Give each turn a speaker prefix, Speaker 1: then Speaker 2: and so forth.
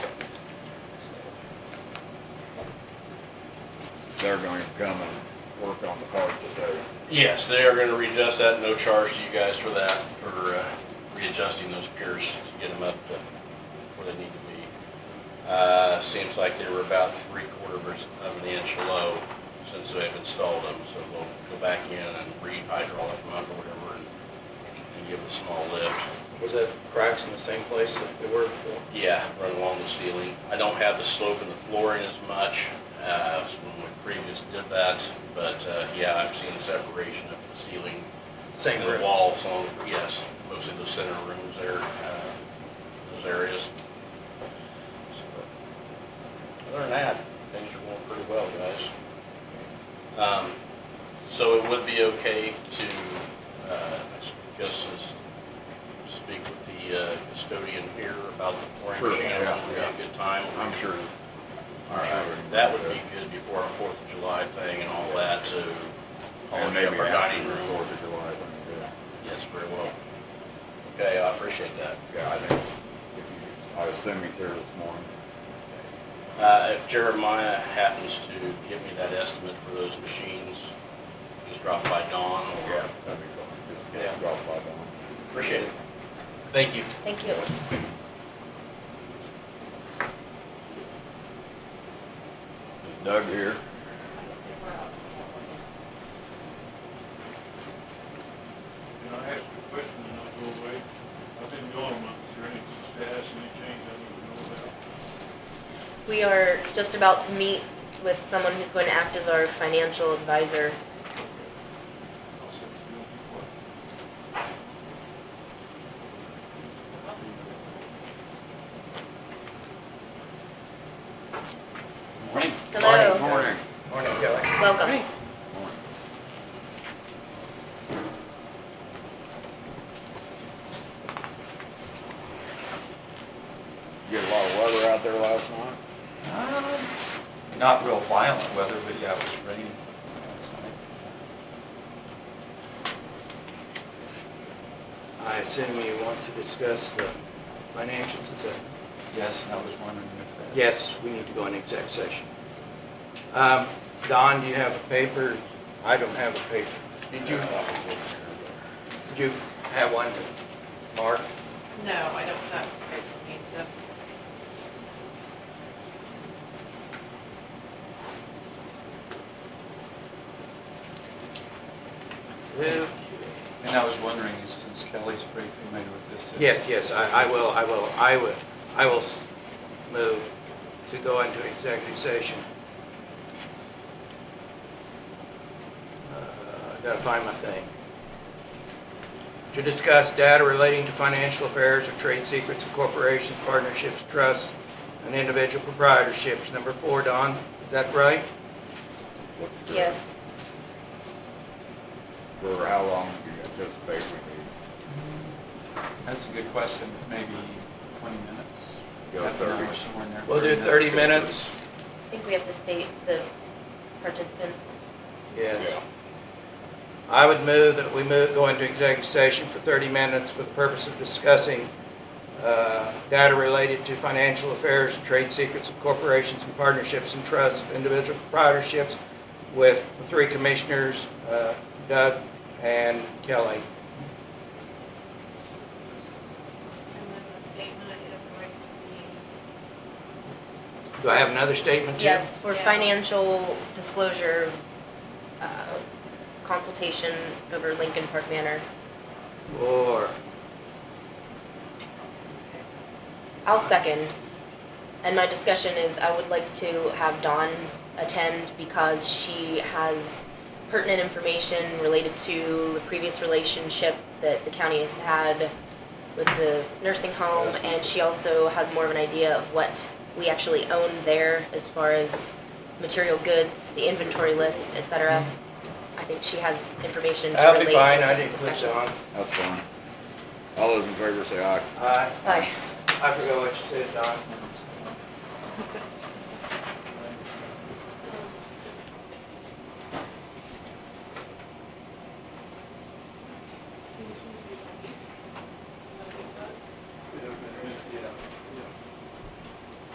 Speaker 1: they're going to come and work on the part today.
Speaker 2: Yes, they are gonna readjust that, no charge to you guys for that, for uh, readjusting those piers to get them up to where they need to be. Uh, seems like they were about three quarters of an inch low since they've installed them, so we'll go back in and re-hydraulic them up or whatever and, and give it a small lift.
Speaker 3: Was that cracks in the same place that they were before?
Speaker 2: Yeah, run along the ceiling. I don't have the slope in the flooring as much uh, as when we previously did that, but, uh, yeah, I've seen separation of the ceiling
Speaker 3: Same
Speaker 2: the
Speaker 3: rooms?
Speaker 2: walls on, yes, mostly the center rooms there, uh, those areas. So, Other than that, things are going pretty well, guys. Um, So it would be okay to, uh, I guess, is speak with the uh, custodian here about the
Speaker 1: Sure,
Speaker 2: flooring machine,
Speaker 1: yeah,
Speaker 2: we have a good time.
Speaker 1: I'm sure.
Speaker 2: All right, that would be good before our Fourth of July thing and all that to
Speaker 1: And
Speaker 2: polish up
Speaker 1: maybe
Speaker 2: our dining
Speaker 1: after the
Speaker 2: room.
Speaker 1: Fourth of July thing, yeah.
Speaker 2: Yes, very well. Okay, I appreciate that.
Speaker 1: Yeah, I think, if you, I assume he's here this morning.
Speaker 2: Uh, if Jeremiah happens to give me that estimate for those machines, just drop by Dawn or.
Speaker 1: That'd be cool.
Speaker 2: Yeah.
Speaker 1: Just drop by on.
Speaker 2: Appreciate it. Thank you.
Speaker 4: Thank you.
Speaker 1: Is Doug here?
Speaker 5: Can I ask you a question and I'll go away? I've been gone a month, is there any status, any change I need to know about?
Speaker 4: We are just about to meet with someone who's going to act as our financial advisor.
Speaker 5: I'll set the bill before.
Speaker 2: Morning.
Speaker 4: Hello.
Speaker 1: Morning.
Speaker 3: Morning, Kelly.
Speaker 4: Welcome.
Speaker 1: Morning. Get a lot of weather out there last night?
Speaker 6: Um, Not real violent weather, but yeah, it was raining last night.
Speaker 3: I assume you want to discuss the financials, is that?
Speaker 6: Yes, and I was wondering if that.
Speaker 3: Yes, we need to go in exec session. Um, Don, do you have a paper? I don't have a paper. Did you, did you have one, Mark?
Speaker 7: No, I don't know. I just need to.
Speaker 3: Well,
Speaker 6: And I was wondering, is- since Kelly's pretty familiar with this. if-
Speaker 3: Yes, yes, I, I will, I will, I will, I will s- move to go into executive session. Uh, I Gotta find my thing. To discuss data relating to financial affairs or trade secrets of corporations, partnerships, trusts, and individual proprietorships. Number four, Don, is that right?
Speaker 4: Yes.
Speaker 1: For how long do you anticipate we
Speaker 6: That's a good question, maybe 20 minutes?
Speaker 1: Go
Speaker 6: Half an hour,
Speaker 1: 30.
Speaker 6: somewhere in there.
Speaker 3: We'll do 30 minutes.
Speaker 4: I think we have to state the participants.
Speaker 3: Yes. I would move that we move, go into executive session for 30 minutes for the purpose of discussing uh, data related to financial affairs, trade secrets of corporations and partnerships and trusts of individual proprietorships with the three commissioners, uh, Doug and Kelly.
Speaker 7: And then the statement is going to be,
Speaker 3: Do I have another statement, Jim?
Speaker 4: Yes, for
Speaker 7: Yeah.
Speaker 4: financial disclosure, uh, consultation over Lincoln Park Manor.
Speaker 3: Or,
Speaker 4: I'll second. And my discussion is I would like to have Dawn attend because she has pertinent information related to the previous relationship that the county has had with the nursing home, and she also has more of an idea of what we actually own there as far as material goods, the inventory list, et cetera. I think she has information to
Speaker 3: I'll
Speaker 4: relate
Speaker 3: be
Speaker 4: to
Speaker 3: fine, I
Speaker 4: this
Speaker 3: didn't put
Speaker 4: discussion.
Speaker 3: you on.
Speaker 1: That's fine. All those in favor say aye.
Speaker 3: I,
Speaker 4: Aye.
Speaker 3: I forgot what you said, Don.